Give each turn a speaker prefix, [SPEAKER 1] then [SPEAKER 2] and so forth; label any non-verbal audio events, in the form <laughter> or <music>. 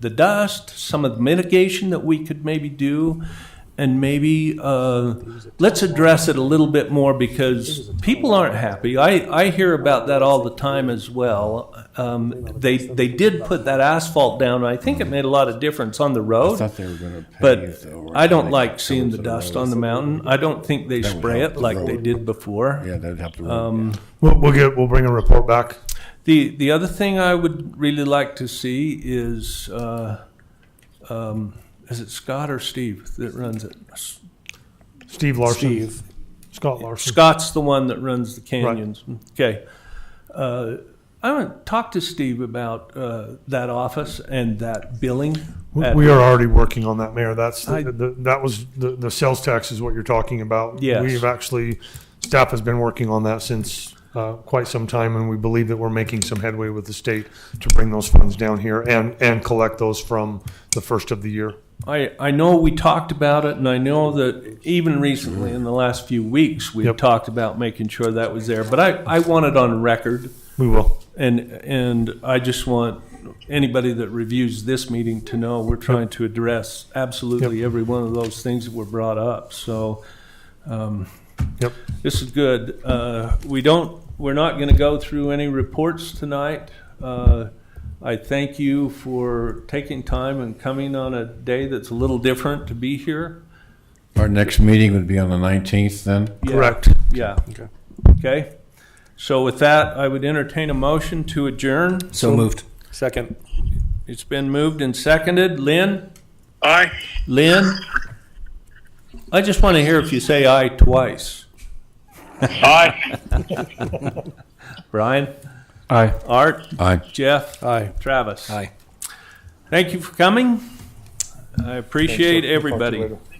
[SPEAKER 1] the dust, some of the mitigation that we could maybe do, and maybe uh, let's address it a little bit more because people aren't happy. I, I hear about that all the time as well. Um, they they did put that asphalt down. I think it made a lot of difference on the road.
[SPEAKER 2] thought they were gonna pave
[SPEAKER 1] But
[SPEAKER 2] the over-
[SPEAKER 1] I don't
[SPEAKER 2] like
[SPEAKER 1] like seeing the
[SPEAKER 2] covers of
[SPEAKER 1] dust on the mountain. I don't think they
[SPEAKER 2] would
[SPEAKER 1] spray
[SPEAKER 2] help
[SPEAKER 1] it
[SPEAKER 2] the
[SPEAKER 1] like they
[SPEAKER 2] road.
[SPEAKER 1] did before.
[SPEAKER 2] Yeah, that'd help the
[SPEAKER 1] Um,
[SPEAKER 2] road.
[SPEAKER 3] We'll, we'll get, we'll bring a report back.
[SPEAKER 1] The the other thing I would really like to see is uh, um, is it Scott or Steve that runs it?
[SPEAKER 3] Steve Larson. Scott Larson.
[SPEAKER 1] Scott's the one that runs the canyons. Okay. Uh, I haven't talked to Steve about uh, that office and that billing.
[SPEAKER 3] We
[SPEAKER 1] at-
[SPEAKER 3] we are already working on that, Mayor. That's, the-
[SPEAKER 1] I-
[SPEAKER 3] the- that was, the, the sales tax is what you're talking about.
[SPEAKER 1] Yes.
[SPEAKER 3] We've actually, staff has been working on that since uh, quite some time, and we believe that we're making some headway with the state to bring those funds down here and, and collect those from the first of the year.
[SPEAKER 1] I, I know we talked about it, and I know that even recently, in the last few weeks, we've
[SPEAKER 3] Yep.
[SPEAKER 1] talked about making sure that was there. But I, I want it on record,
[SPEAKER 3] We will.
[SPEAKER 1] and, and I just want anybody that reviews this meeting to know we're trying to address absolutely every one of those things that were brought up. So um,
[SPEAKER 3] Yep.
[SPEAKER 1] This is good. Uh, We don't, we're not going to go through any reports tonight. Uh, I thank you for taking time and coming on a day that's a little different to be here.
[SPEAKER 2] Our next meeting would be on the nineteenth then?
[SPEAKER 1] Yeah,
[SPEAKER 3] Correct.
[SPEAKER 1] Yeah.
[SPEAKER 3] Okay.
[SPEAKER 1] Okay. So with that, I would entertain a motion to adjourn.
[SPEAKER 4] So moved.
[SPEAKER 5] Second.
[SPEAKER 1] It's been moved and seconded. Lynn?
[SPEAKER 6] Aye.
[SPEAKER 1] Lynn? I just want to hear if you say aye twice.
[SPEAKER 6] Aye.
[SPEAKER 1] <laughs> Brian?
[SPEAKER 3] Aye.
[SPEAKER 1] Art?
[SPEAKER 2] Aye.
[SPEAKER 1] Jeff?
[SPEAKER 5] Aye.
[SPEAKER 1] Travis?
[SPEAKER 4] Aye.
[SPEAKER 1] Thank you for coming. I appreciate everybody.
[SPEAKER 3] Talk to you later.